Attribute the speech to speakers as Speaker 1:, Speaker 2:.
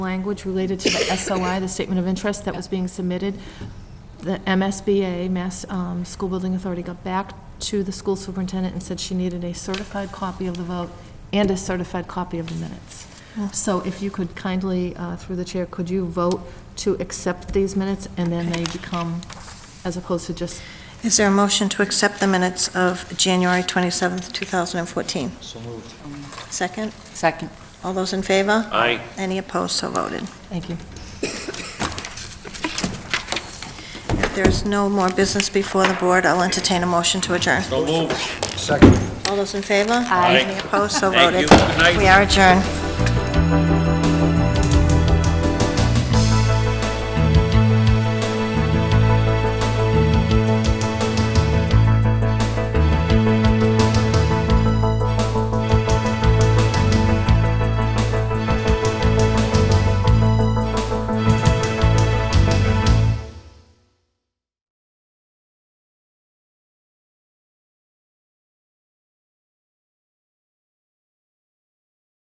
Speaker 1: language related to the SOI, the Statement of Interest that was being submitted. The MSBA, Mass um, School Building Authority, got back to the school superintendent and said she needed a certified copy of the vote and a certified copy of the minutes. So if you could kindly, uh, through the chair, could you vote to accept these minutes, and then they become, as opposed to just,
Speaker 2: Is there a motion to accept the minutes of January 27th, 2014?
Speaker 3: So moved.
Speaker 2: Second?
Speaker 4: Second.
Speaker 2: All those in favor?
Speaker 3: Aye.
Speaker 2: Any opposed, so voted.
Speaker 1: thank you.
Speaker 2: If there's no more business before the board, I'll entertain a motion to adjourn.
Speaker 3: So moved. Second.
Speaker 2: All those in favor?
Speaker 3: Aye.
Speaker 2: Any opposed, so
Speaker 3: Thank
Speaker 2: voted.
Speaker 3: you. Good night.
Speaker 2: We are adjourned.